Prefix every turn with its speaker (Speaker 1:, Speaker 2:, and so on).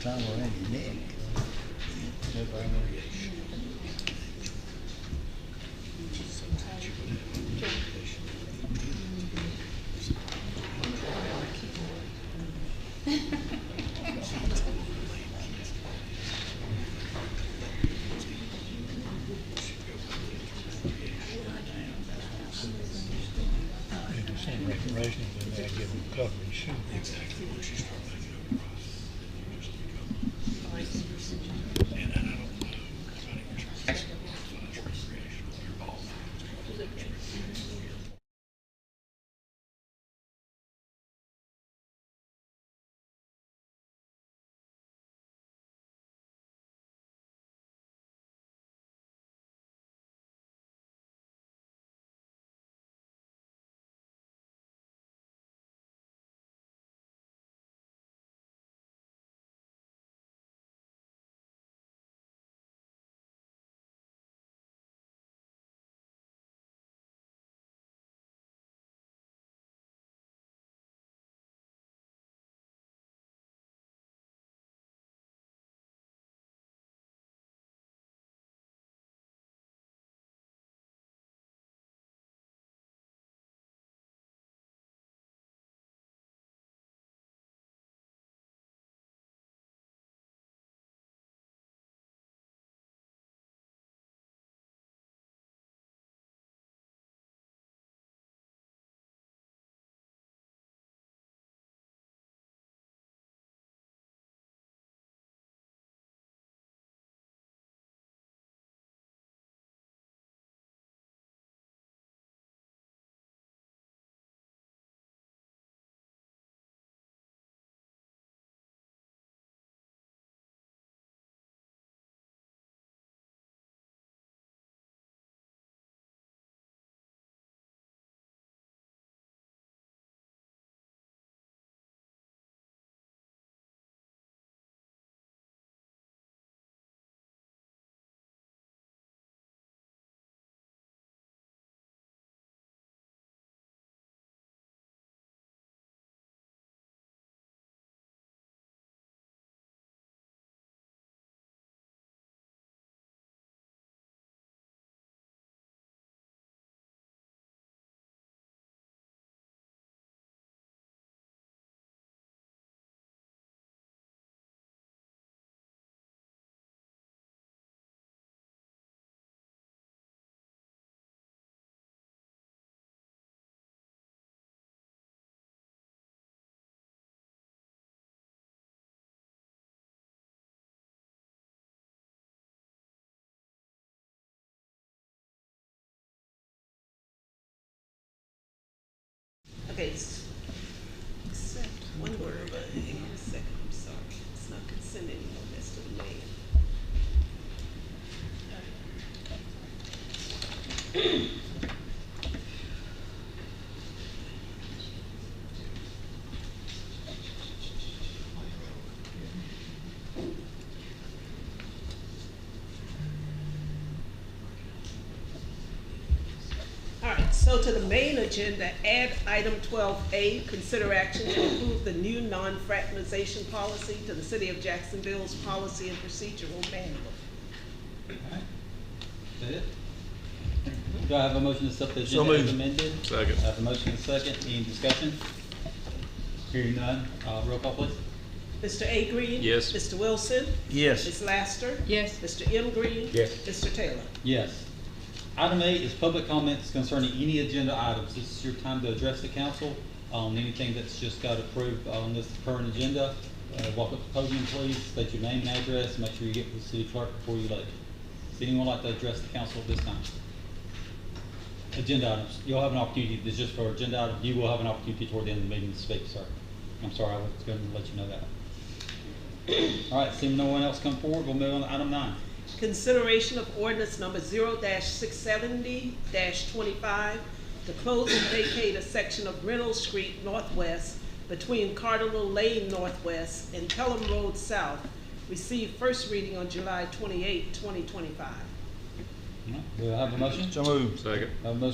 Speaker 1: Tom or any Nick. Nobody knows.
Speaker 2: If you send information, then they give them coverage soon. Exactly, once you start making a price, you just become. And I don't know, if I didn't try to find recreational, you're all.
Speaker 3: Okay, s- except one word, but hang on a second, I'm sorry. It's not consent anymore, that's to the man. All right, so to the main agenda, add item twelve A, consider action to approve the new non-fragmentation policy to the city of Jacksonville's policy and procedural manual.
Speaker 4: Alright. Is that it? Do I have a motion to accept the agenda as amended?
Speaker 5: Second.
Speaker 4: I have a motion and a second, any discussion? Hearing none, uh, roll call please.
Speaker 3: Mr. A Green?
Speaker 5: Yes.
Speaker 3: Mr. Wilson?
Speaker 1: Yes.
Speaker 3: Ms. Laster?
Speaker 6: Yes.
Speaker 3: Mr. M Green?
Speaker 5: Yes.
Speaker 3: Mr. Taylor?
Speaker 4: Yes. Item eight is public comments concerning any agenda items. This is your time to address the council on anything that's just got approved on this current agenda. Uh, walk up to the podium, please, state your name and address, make sure you get to the city clerk before you leave. Does anyone like to address the council at this time? Agenda items, you'll have an opportunity, this is just for agenda items, you will have an opportunity toward the end of the meeting to speak, sir. I'm sorry, I was gonna let you know that. All right, seeing no one else come forward, we'll move on to item nine.
Speaker 3: Consideration of ordinance number zero six seventy twenty-five to close and vacate a section of Reynolds Street Northwest between Cardinal Lane Northwest and Pelham Road South. Received first reading on July 28, twenty twenty-five.
Speaker 4: All right, Do I have a motion?
Speaker 1: So moved.
Speaker 5: Second.
Speaker 4: Have a motion